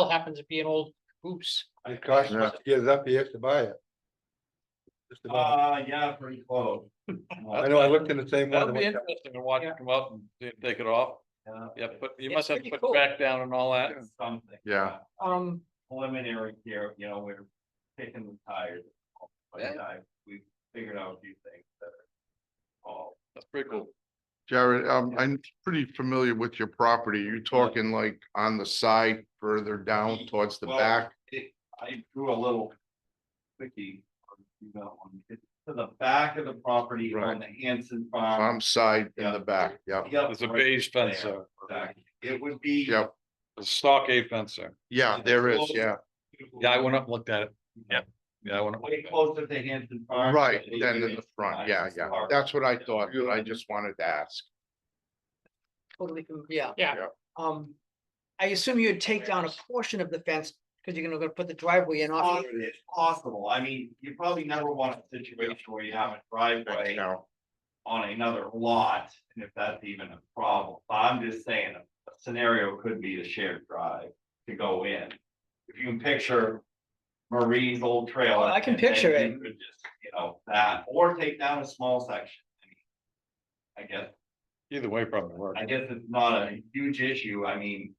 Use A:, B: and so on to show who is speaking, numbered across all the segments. A: still happens to be an old goose.
B: It costs us to get it up, you have to buy it. Just about.
C: Uh, yeah, pretty close.
B: I know, I looked in the same
D: That'd
B: one.
D: be interesting to watch
A: Yeah.
D: them come up and see if take it off.
C: Yeah.
D: Yeah, but you
A: It's
D: must have
A: pretty
D: to put
A: cool.
D: track down and all that.
C: Something.
B: Yeah.
A: Um,
C: Preliminary here, you know, we're kicking the tires. But
D: Yeah.
C: I, we figured out a few things that are. all
D: That's pretty cool.
E: Jared, um, I'm pretty familiar with your property. You're talking like on the side further down towards the
C: Well-
E: back.
C: it, I drew a little quickie. on the email on it. It's To the back of the property on the Hanson
E: farm
B: um,
C: farm.
E: side in
C: Yeah.
E: the back, yeah.
C: Yep,
D: There's a
C: right
D: beige fence
C: there.
D: there,
C: Exactly. It would be.
E: Yeah,
D: a stockade fence there.
E: yeah, there is, yeah,
D: Yeah, I went up and looked at it. Yeah. Yeah, I went up. and
C: Way
D: looked at it.
C: closer to Hanson Farm.
E: right,
C: but it
E: then in
C: is
E: the
C: nice
E: front, yeah, yeah.
C: park.
E: That's what I thought, but I just wanted to ask.
A: totally, can- yeah.
E: Yeah.
A: Um, I assume you'd take down a portion of the fence, because you're gonna go put the driveway in off.
C: If it's Possible, I mean, you probably never want a situation where you have a driveway
E: No,
C: on another lot, and if that's even a problem, but I'm just saying, a scenario could be a shared drive to go in. If you can picture Marie's old trailer.
A: Oh, I can
C: and then
A: picture
C: you could just, You know, that, or take down a small section. I mean, I guess,
D: Either way probably works.
C: I guess it's not a huge issue, I mean.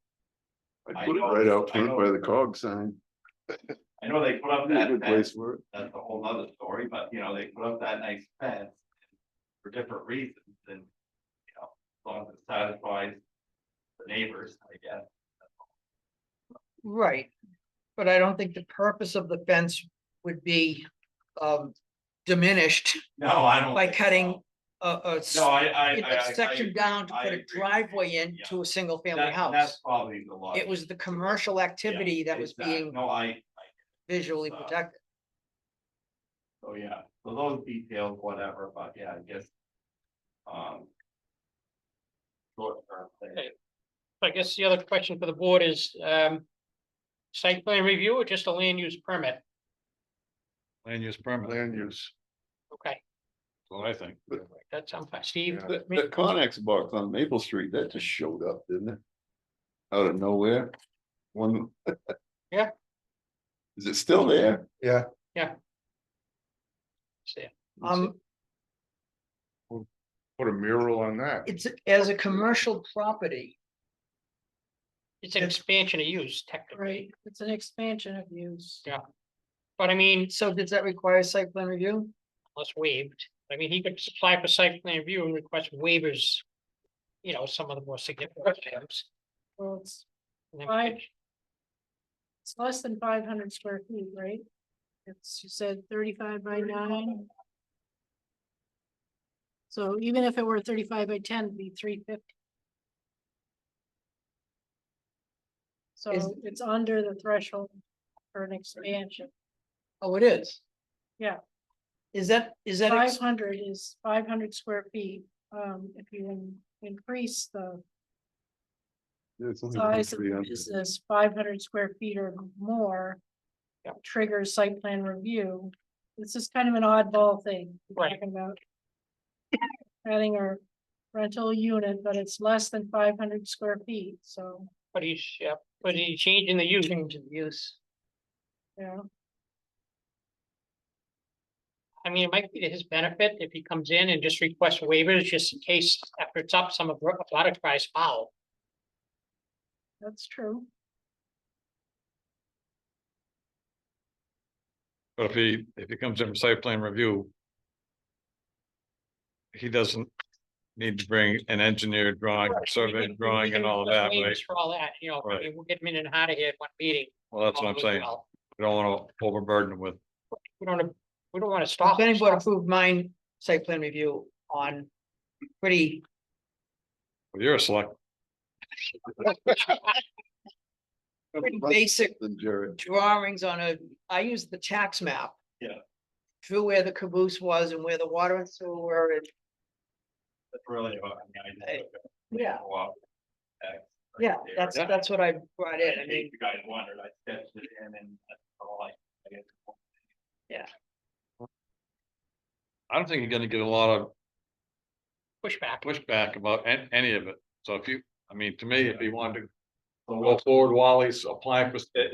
C: I
F: Put it
C: know-
F: right out
C: I
F: front
C: know-
F: by the cog sign.
C: I know they put up
F: Be a
C: that
F: good
C: fence,
F: place for it.
C: that's a whole nother story, but you know, they put up that nice fence. For different reasons and, you know, as long as it satisfies the neighbors, I guess.
A: Right, but I don't think the purpose of the fence would be um diminished
C: No, I don't.
A: by
C: think so.
A: cutting a a s-
C: No, I, I, I- I.
A: a section down to
C: I
A: put a
C: agree.
A: driveway in
C: Yeah.
A: to a single family
C: that- That's
A: house.
C: probably the law.
A: It was the commercial activity that was being
C: No, I, I,
A: visually
C: uh,
A: protected.
C: so yeah, so those details, whatever, but yeah, I guess. Um. Short term thing.
A: Okay.
G: I guess the other question for the board is, um. Site plan review or just a land use permit?
D: Land use permit,
E: land use.
G: Okay,
D: well, I think.
G: that sounds fine. Steve,
E: Yeah.
G: I
F: The,
G: mean,
F: the Connex box on Maple Street, that just showed up, didn't it? Out of nowhere, one.
G: Yeah.
F: Is it still there?
B: Yeah,
A: Um,
E: Put a mural on that.
A: it's as a commercial property,
G: it's an expansion of use technically,
H: Right, it's an expansion of use.
G: but I mean,
A: so does that require site plan review?
G: unless waived. I mean, he could apply for site plan review and request waivers. You know, some of the more significant items.
H: Well, it's,
G: and then-
H: Right. it's less than five hundred square feet, right? It's, you said thirty-five by nine. So even if it were thirty-five by ten, it'd be three fifty.
A: Is-
H: So it's under the threshold for an expansion.
A: Oh, it is?
H: Yeah.
A: Is that, is that? ex-
H: Five hundred is five hundred square feet, um, if you in- increase the
F: Yeah, it's only around
H: size of
F: 300.
H: business, five hundred square feet or more.
G: Yep.
H: Triggers site plan review. This is kind of an oddball thing. we're
G: Right.
H: talking about Adding a rental unit, but it's less than five hundred square feet, so,
G: But he's, yeah, but he's changing the use.
A: Change of use.
H: yeah.
G: I mean, it might be to his benefit if he comes in and just requests waivers, just in case after it's up, some of the product tries foul.
H: That's true.
D: But if he, if he comes in for site plan review. He doesn't need to bring an engineered drawing,
G: Right, we
D: survey
G: can- we- we
D: drawing
G: can
D: and all
G: request
D: that,
G: waivers
D: right?
G: For all that, you know, I
D: Right.
G: mean, we'll get them in and out of here at one meeting.
D: Well, that's what
G: all
D: I'm
G: goes
D: saying.
G: well.
D: We don't want to overburden him with
G: We don't, wanna- we don't wanna
A: The
G: stop.
A: planning board
G: stop-
A: approved mine site plan review on pretty,
D: Well, You're a select,
A: pretty
F: Much
A: basic
F: Than Jared.
A: drawings on a, I used the tax map.
C: Yeah.
A: Drew where the caboose was and where the water and sewer were, and,
C: That's really about, I mean, I
A: Hey,
C: just.
A: yeah,
C: Wow. That's right
A: yeah,
C: there.
A: that's, that's what I brought in, I
C: In
A: mean,
C: case You guys wondered, I sketched it in and that's all I, I guess.
D: I don't think you're gonna get a lot of
G: Pushback.
D: pushback about an- any of it. So if you, I mean, to me, if he wanted to
C: So
D: go forward while he's applying for,